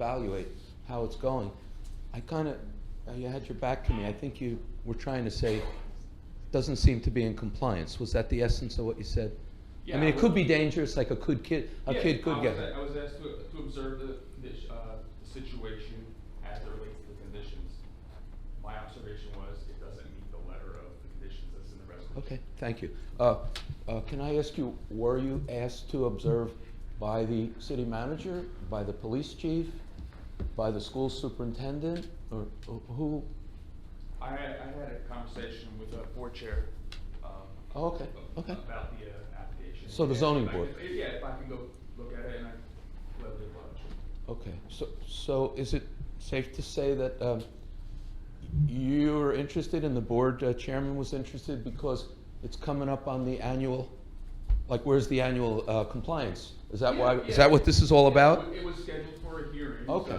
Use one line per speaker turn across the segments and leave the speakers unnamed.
evaluate how it's going. I kind of, you had your back to me. I think you were trying to say, doesn't seem to be in compliance. Was that the essence of what you said? I
Yeah,
mean,
I
it could
was-
be dangerous, like a could kid, a
Yeah,
kid
I
could get
was-
hurt.
I was asked to, to observe the, the, sh- uh, the situation as it relates to the conditions. My observation was it doesn't meet the letter of the conditions that's in the resolution.
Okay, thank you. Uh, uh, Can I ask you, were you asked to observe by the city manager, by the police chief, by the school superintendent, or who?
I had, I had a conversation with the board chair, um.
Oh, okay,
ab-
okay.
About the uh, application.
So the
Yeah,
zoning
if I
board.
could- Yeah, if I can go look at it and I gladly oblige.
Okay, so, so is it safe to say that um, you were interested and the board uh, chairman was interested because it's coming up on the annual, like, where's the annual uh, compliance? Is that
Yeah,
why, is
yeah.
that what this is all
Yeah,
about?
It was scheduled for a hearing, so,
Okay.
uh,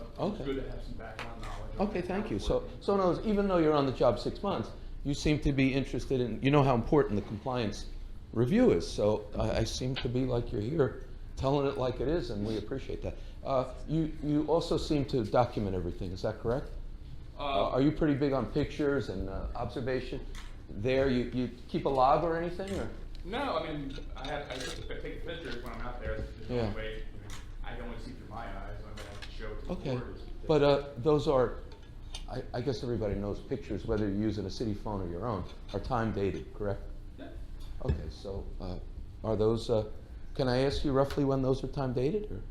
it's
Okay.
good to have some background knowledge. on
Okay,
how
thank
it's
you. So,
working.
so in other words, even though you're on the job six months, you seem to be interested in, you know how important the compliance review is. So I, I seem to be like you're here telling it like it is, and we appreciate that. Uh, you, you also seem to document everything, is that correct? Uh,
Uh,
are you pretty big on pictures and uh, observation? There, you, you keep a log or anything, or?
no, I mean, I have, I just- I take pictures when I'm out there, there's
Yeah.
no way, I mean, I can only see through my eyes, I'm gonna have to show it to the
Okay,
board.
but uh, those are, I, I guess everybody knows pictures, whether you're using a city phone or your own, are time dated, correct?
Yeah.
Okay, so uh, are those, uh, can I ask you roughly when those are time dated? or-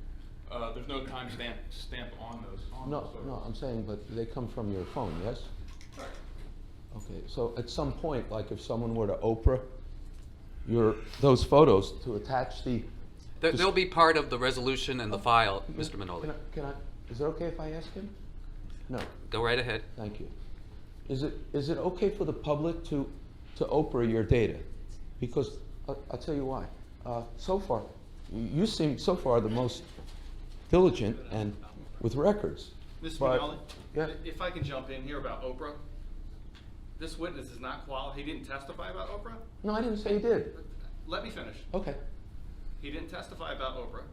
Uh, there's no time stamp, stamp on those, on those
No,
photos.
no, I'm saying, but they come from your phone, yes?
Sorry.
Okay, so at some point, like if someone were to Oprah your, those photos to attach the.
They-
Just- Oh.
They'll be part of the resolution and the file, Mr.
Can
Minoli.
I- Can I, is it okay if I ask him? No.
Go right ahead.
Thank you. Is it, is it okay for the public to, to Oprah your data? Because, I- I'll tell you why. Uh, So far, you seem so far the most diligent and with records.
Mr.
But-
Minelli?
Yeah.
If I can jump in here about Oprah. This witness is not qual, he didn't testify about Oprah?
No, I didn't say you did.
Let me finish.
Okay.
He didn't testify about Oprah.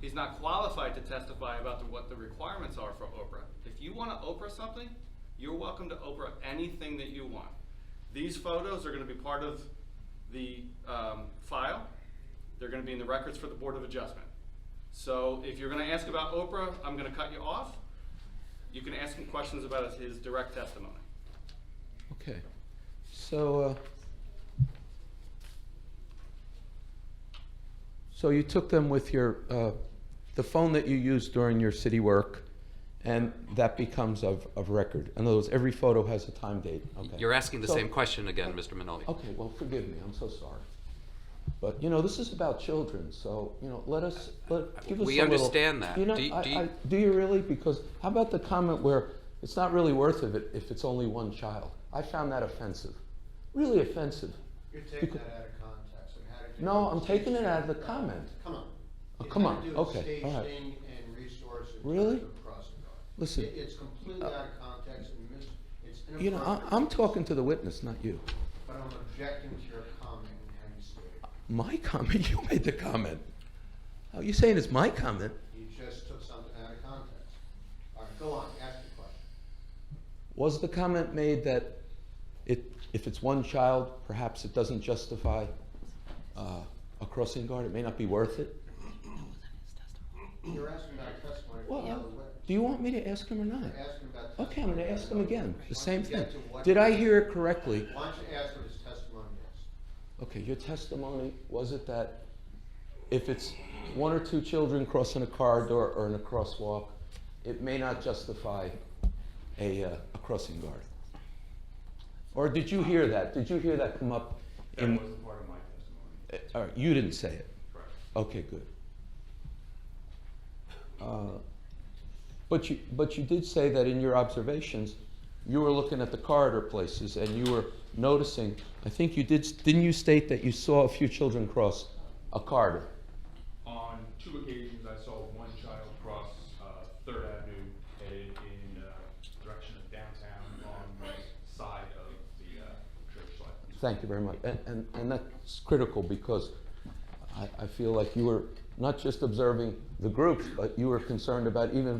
He's not qualified to testify about the, what the requirements are for Oprah. If you want to Oprah something, you're welcome to Oprah anything that you want. These photos are going to be part of the um, file. They're going to be in the records for the Board of Adjustment. So if you're going to ask about Oprah, I'm going to cut you off. You can ask him questions about his, his direct testimony.
Okay. So, uh, so you took them with your, uh, the phone that you used during your city work, and that becomes of, of record. In other words, every photo has a time date. Okay.
You're asking the
So-
same question again, Mr. Minoli.
Okay, well, forgive me, I'm so sorry. But, you know, this is about children, so, you know, let us, let, give us a little.
We understand that.
You know,
Do you-
I-
do you-
I- do you really? Because how about the comment where it's not really worth of it if it's only one child? I found that offensive, really offensive.
You're taking that out of context. I mean, how did you-
No, I'm taking it out of the comment.
Come on.
Oh,
It
come
had
on.
to do with
Okay, all right.
Staging and resource. in
Really?
terms of crossing guard.
Listen. Uh,
It- It's completely out of context and mis, it's inappropriate.
You know, I- I'm talking to the witness, not you.
But I'm objecting to your comment and how you stated. it.
My comment, you made the comment. Oh, You're saying it's my comment?
You just took something out of context. All right, go on, ask the question.
Was the comment made that it, if it's one child, perhaps it doesn't justify uh, a crossing guard, it may not be worth it?
You're asking about testimony from
Well,
another witness.
do you want me to ask him or not?
You're asking about testimony.
Okay, I'm gonna
from
ask him
another
again, the
witness. Why
same
don't you
thing.
get to what-
Did I hear it correctly?
Why don't you ask what his testimony is?
Okay, your testimony, was it that if it's one or two children crossing a corridor or in a crosswalk, it may not justify a, uh, a crossing guard? Or did you hear that? Did you hear that come up
That
in,
wasn't part of my testimony,
Uh, All right, you didn't say it.
correct.
Okay, good. Uh, But you, but you did say that in your observations, you were looking at the corridor places and you were noticing, I think you did, didn't you state that you saw a few children cross a corridor?
On two occasions, I saw one child cross uh, Third Avenue headed in uh, direction of downtown on the side of the uh, church side.
Thank you very much. And, and, and that's critical because I, I feel like you were not just observing the groups, but you were concerned about even